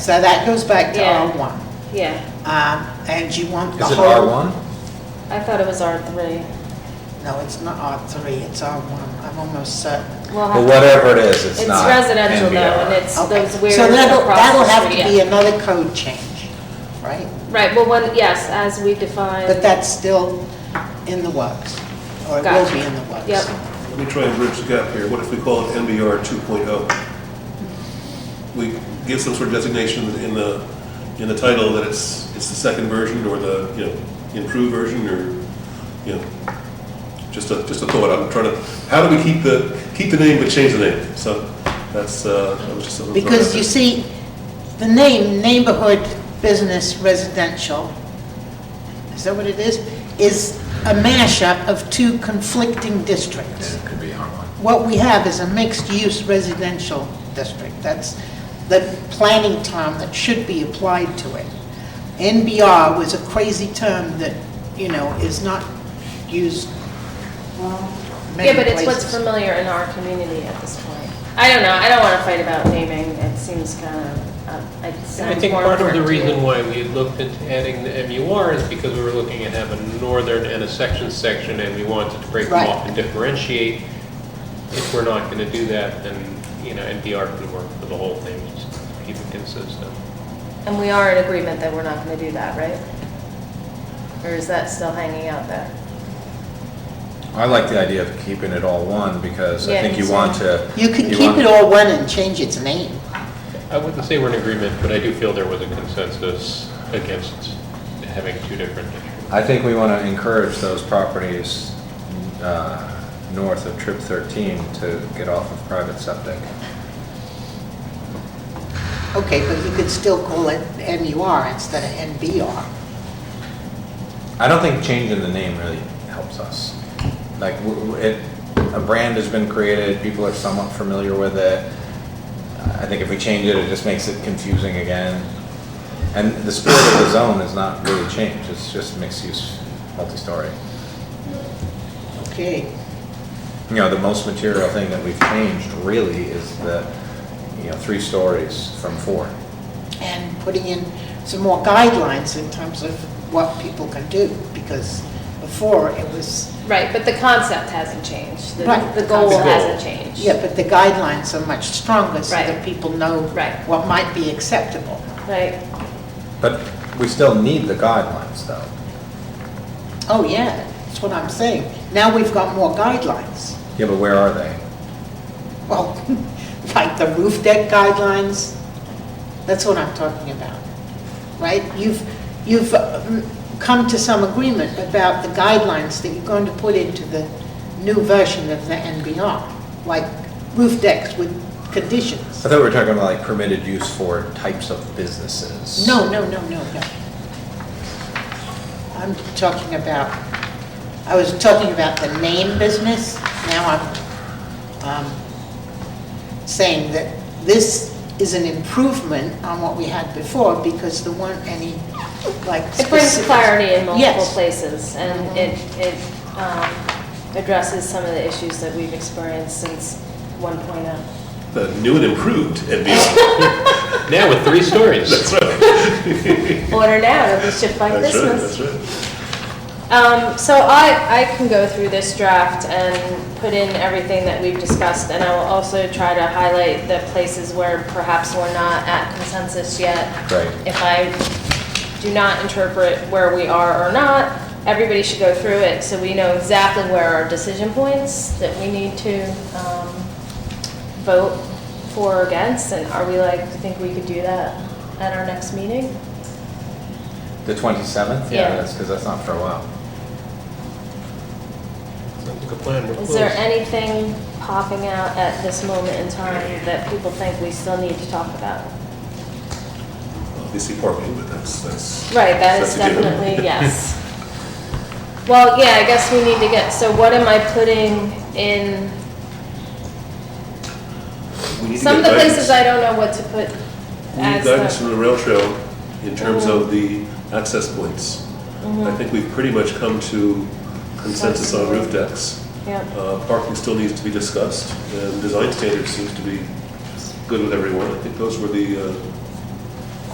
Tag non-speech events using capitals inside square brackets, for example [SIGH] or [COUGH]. So that goes back to Yeah. R1. Yeah, Um, And you want the Is it whole... R1? I thought it was R3. No, it's not R3, it's R1, I'm almost certain. We'll have Well, to- whatever it is, it's It's not. residential though, NBR. and it's Okay. those weird. So that'll, across that'll the have to street, be yeah. another code change, right? Right, well, when, yes, as we define. But that's still in the works, or it will Gotcha. be in the works. Yep, Let me try and bridge the gap here. What if we call it MBR 2.0? oh? We give some sort of designation in the, in the title that it's, it's the second version or the, you know, improved version or, you know, just a, just a thought. I'm trying to, how do we keep the, keep the name but change the name? So that's, uh, that was just something. to throw out Because you there. see, the name, neighborhood business residential, is that what it is? Is a mashup of two conflicting districts. Yeah, it could be R1. What we have is a mixed-use residential district. That's the planning term that should be applied to it. NBR was a crazy term that, you know, is not used many yeah, but it's what's places. familiar in our community at this point. I don't know, I don't want to fight about naming, it seems kind of, it sounds more I think part of the important to me. reason why we looked into adding the MUR is because we were looking at have a northern and a section section, and we wanted to break them Right. off and differentiate. If we're not gonna do that, then, you know, NPR can work for the whole thing, just keep it consistent. And we are in agreement that we're not going to do that, right? Or is that still hanging out there? I like the idea of keeping it all one because I Yeah, think me you too. want to. You can keep want- it all one and change its name. I wouldn't say we're in agreement, but I do feel there was a consensus against having two different districts. I think we want to encourage those properties uh, north of Trip 13 to get off of private septic. Okay, but you could still call it MUR instead of NBR. I don't think changing the name really helps us. Like, w- w- it, a brand has been created, people are somewhat familiar with it. I think if we change it, it just makes it confusing again. And the spirit of the zone is not really changed, it's just mixed-use, multi-story. Okay, You know, the most material thing that we've changed really is the, you know, three stories from four. and putting in some more guidelines in terms of what people can do, because before it was, Right, but the concept hasn't changed. The- Right, The the goal concept. hasn't changed. yeah, but the guidelines are much stronger so that Right. people know Right. what might be acceptable. Right, But we still need the guidelines, though. Oh, yeah, that's what I'm saying. Now we've got more guidelines. Yeah, but where are they? Well, [LAUGHS] like the roof deck guidelines, that's what I'm talking about, right? You've, you've um, come to some agreement about the guidelines that you're going to put into the new version of the NBR, like roof decks with I conditions. thought we were talking about like permitted use for types of businesses. No, no, no, no, no. I'm talking about, I was talking about the name business, now I'm um, saying that this is an improvement on what we had before because there weren't any, like. it brings specific- clarity in multiple Yes. Mm-hmm. places, and it, it um, addresses some of the issues that we've experienced since oh. 1.0. The new and improved MBR. Now with three stories. That's right. Order now, it'll be shipped by That's right, Christmas. that's right. Um, so I, I can go through this draft and put in everything that we've discussed, and I will also try to highlight the places where perhaps we're not at consensus yet. Right. If I do not interpret where we are or not, everybody should go through it, so we know exactly where our decision points that we need to, um, vote for or against, and are we like, think we could do that at our next meeting? The 27th? Yeah. That's because that's not for a while. Sounds like a plan, we're Is there close. anything popping out at this moment in time that people think we still need to talk about? Obviously parking, but that's, that's. Right, that is that's a given. [LAUGHS] definitely, yes. Well, yeah, I guess we need to get, so what am I putting in? We need to Some of get the guidance. places I don't know what to put We need as guidance the, Mm-hmm. from the rail trail in terms of the access points. I think we've pretty much come to consensus on roof decks. yeah, Uh, Parking still needs to be discussed, and design standards seems to be good with everyone. I think those were the, uh,